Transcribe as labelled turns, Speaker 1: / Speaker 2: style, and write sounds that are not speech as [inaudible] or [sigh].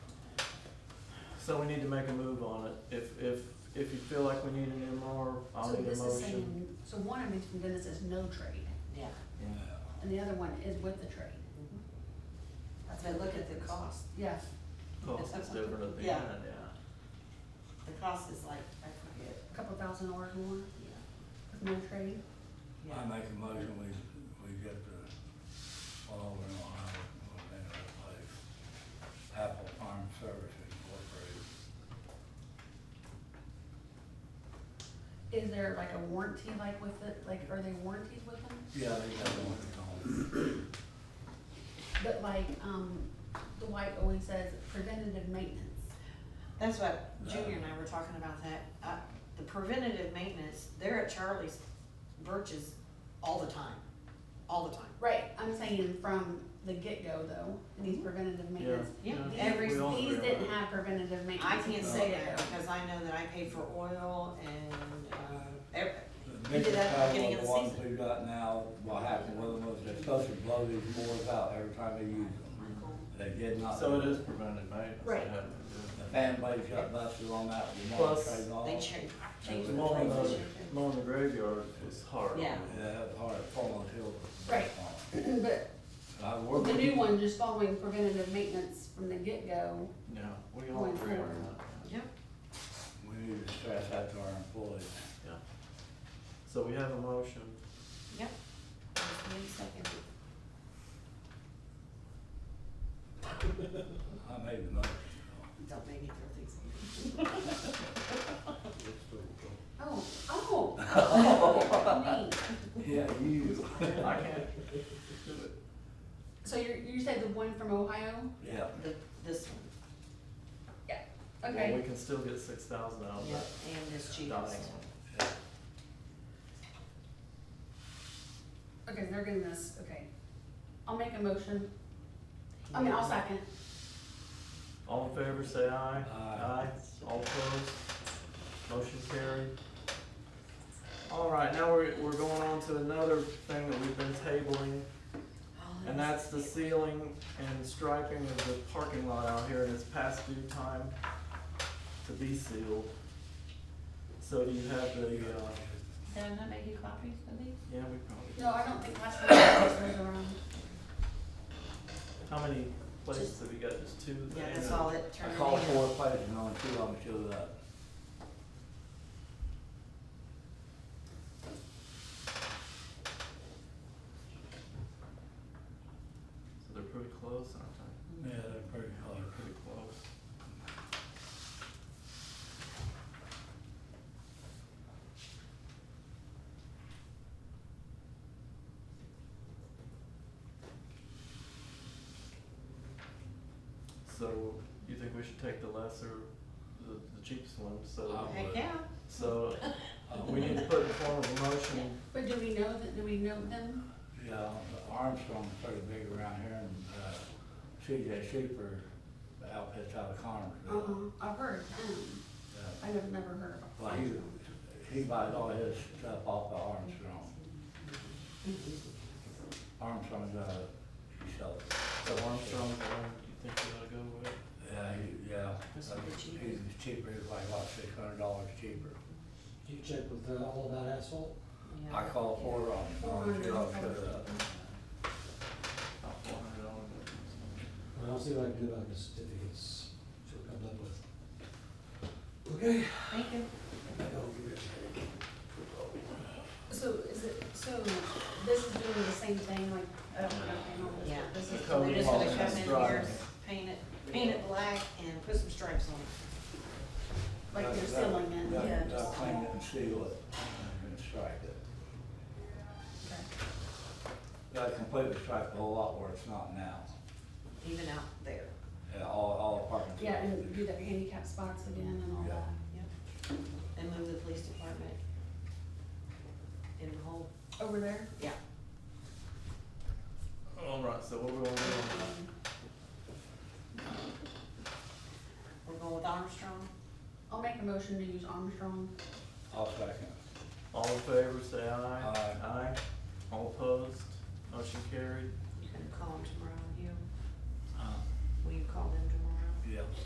Speaker 1: So we need to make a move on it. If, if, if you feel like we need an MR, I'll
Speaker 2: So
Speaker 1: need a
Speaker 2: this is
Speaker 1: motion.
Speaker 2: saying, so one I mentioned then it says no trade,
Speaker 3: Yeah,
Speaker 1: Yeah.
Speaker 2: and the other one is with the trade.
Speaker 3: but look at the cost.
Speaker 2: Yeah,
Speaker 1: Cost is different at the
Speaker 3: Yeah.
Speaker 1: end, yeah.
Speaker 3: The cost is like, I forget.
Speaker 2: a couple thousand dollars more
Speaker 3: Yeah.
Speaker 2: with no trade.
Speaker 4: I make a motion, we, we get the, all over in Ohio, we'll name that place, Apple Farm Services Incorporated.
Speaker 2: Is there like a warranty like with it, like are they warranties with them?
Speaker 4: Yeah, they got one at home.
Speaker 2: But like, um, the white always says preventative maintenance.
Speaker 3: That's what Junior and I were talking about that, uh, the preventative maintenance, they're at Charlie's Birch's all the time, all the time.
Speaker 2: Right, I'm saying from the get-go though, it needs preventative maintenance.
Speaker 3: Yeah,
Speaker 1: Mm-hmm. Yeah.
Speaker 3: every,
Speaker 1: We all agree
Speaker 2: These
Speaker 1: on
Speaker 2: didn't
Speaker 1: that.
Speaker 2: have preventative maintenance.
Speaker 3: I can't
Speaker 4: Oh,
Speaker 3: say
Speaker 2: at
Speaker 3: that
Speaker 2: the
Speaker 3: because I know that I pay for oil and, uh, ev-
Speaker 4: The
Speaker 3: We did
Speaker 4: biggest
Speaker 3: that at the beginning
Speaker 4: problem,
Speaker 3: of
Speaker 4: the
Speaker 3: the
Speaker 4: ones
Speaker 3: season.
Speaker 4: we got now, what happened with them was they're supposed to blow these boards out every time they use them. They did not.
Speaker 1: So it is preventive maintenance.
Speaker 2: Right.
Speaker 1: It had to
Speaker 4: The
Speaker 1: do
Speaker 4: fan blades got busted on that, the
Speaker 1: Plus-
Speaker 4: trade off.
Speaker 3: they cha- change
Speaker 1: it.
Speaker 3: the
Speaker 1: Mowing
Speaker 3: places.
Speaker 1: the, mowing the graveyard is hard.
Speaker 3: Yeah.
Speaker 4: Yeah, that was hard, falling hill.
Speaker 2: Right. end. But
Speaker 4: I
Speaker 2: Well,
Speaker 4: worked.
Speaker 2: the
Speaker 4: with
Speaker 2: new
Speaker 4: them.
Speaker 2: one, just following preventative maintenance from the get-go,
Speaker 1: Yeah, we all
Speaker 2: Going
Speaker 1: agree on
Speaker 2: forward.
Speaker 1: that.
Speaker 3: Yep,
Speaker 4: We need to stress that to our employees.
Speaker 1: Yeah. So we have a motion.
Speaker 3: yep. Just give me a second.
Speaker 4: I made the motion.
Speaker 3: Don't make me throw things at you.
Speaker 2: oh, oh. neat.
Speaker 4: Yeah, you.
Speaker 1: I can't do it.
Speaker 2: [laughs] So you're, you said the one from Ohio?
Speaker 4: Yeah.
Speaker 3: The, this one,
Speaker 2: Yeah.
Speaker 1: Well, we
Speaker 2: Okay,
Speaker 1: can still get six thousand out of
Speaker 3: yeah,
Speaker 1: that
Speaker 3: and this cheapest.
Speaker 1: dying one.
Speaker 2: okay, they're getting this, okay. I'll make a motion, I mean, I'll second.
Speaker 1: All in favor, say aye.
Speaker 4: Aye.
Speaker 1: All opposed? Motion carried. All right, now we're, we're going on to another thing that we've been tabling,
Speaker 3: Oh,
Speaker 1: and that's the ceiling and striping of the parking lot out here, and it's past due time to be sealed. So do you have the, uh,
Speaker 3: Did I not make you copies of these?
Speaker 1: yeah, we probably,
Speaker 2: No, I don't think last one was around.
Speaker 1: how many places have you got? Just two?
Speaker 3: Yeah,
Speaker 1: And,
Speaker 3: that's
Speaker 1: uh,
Speaker 3: all it
Speaker 4: I
Speaker 3: turned
Speaker 4: called
Speaker 3: in.
Speaker 4: four places and only two of them showed up.
Speaker 1: So they're pretty close, aren't they?
Speaker 4: Yeah, they're pretty close.
Speaker 1: Pretty close. So you think we should take the lesser, the, the cheapest one, so,
Speaker 4: I'll-
Speaker 3: Heck, yeah.
Speaker 1: so uh, we need to put in form of a motion,
Speaker 2: But do we know that, do we know them?
Speaker 4: Yeah, Armstrong's pretty big around here and, uh, CJ Sheeper, the outfit's out of Connersville.
Speaker 3: Uh-huh.
Speaker 2: Uh-uh, I've heard, um, I
Speaker 4: Yeah.
Speaker 2: have never heard of
Speaker 4: Well, he, he buys all his stuff off of Armstrong.
Speaker 3: Mm-hmm.
Speaker 4: Armstrong's, uh, he sells.
Speaker 1: so Armstrong's the one you think we ought to go with?
Speaker 4: Yeah, he, yeah.
Speaker 3: That's a bit cheaper.
Speaker 4: He's cheaper, he's like, what, six hundred dollars cheaper.
Speaker 5: You check with uh, all about asphalt?
Speaker 3: Yeah.
Speaker 4: I called four
Speaker 2: Four
Speaker 4: Armstrong,
Speaker 2: hundred
Speaker 4: they all
Speaker 2: dollars.
Speaker 4: showed up.
Speaker 1: About four hundred dollars.
Speaker 5: Well, I'll see what I can do about the certificates, see what comes up with. Okay.
Speaker 3: Thank you.
Speaker 5: I'll give you a check.
Speaker 2: So is it, so this is doing the same thing, like, oh, okay, no,
Speaker 3: Yeah.
Speaker 2: this is.
Speaker 1: Cover
Speaker 3: They're just gonna
Speaker 1: all
Speaker 3: come in
Speaker 1: the
Speaker 3: here,
Speaker 1: stripes.
Speaker 3: paint it, paint it black and put some stripes on it.
Speaker 2: Like
Speaker 4: That-
Speaker 2: you're
Speaker 4: that-
Speaker 2: sealing it,
Speaker 4: that-
Speaker 2: yeah,
Speaker 4: that
Speaker 2: just-
Speaker 4: clean it and seal it, and then stripe it.
Speaker 2: Okay.
Speaker 4: Gotta completely stripe the whole lot where it's not now.
Speaker 3: Even out there.
Speaker 4: Yeah, all, all apartments.
Speaker 2: Yeah, and do the handicap spots again and all
Speaker 4: Yeah.
Speaker 2: that.
Speaker 3: Yep. And move the police department in the hole.
Speaker 2: Over there?
Speaker 3: Yeah.
Speaker 1: All right, so what we gonna do on that?
Speaker 2: Um,
Speaker 3: We're going with Armstrong.
Speaker 2: I'll make a motion to use Armstrong.
Speaker 4: I'll second.
Speaker 1: All in favor, say aye.
Speaker 4: Aye.
Speaker 1: Aye. All opposed, motion carried.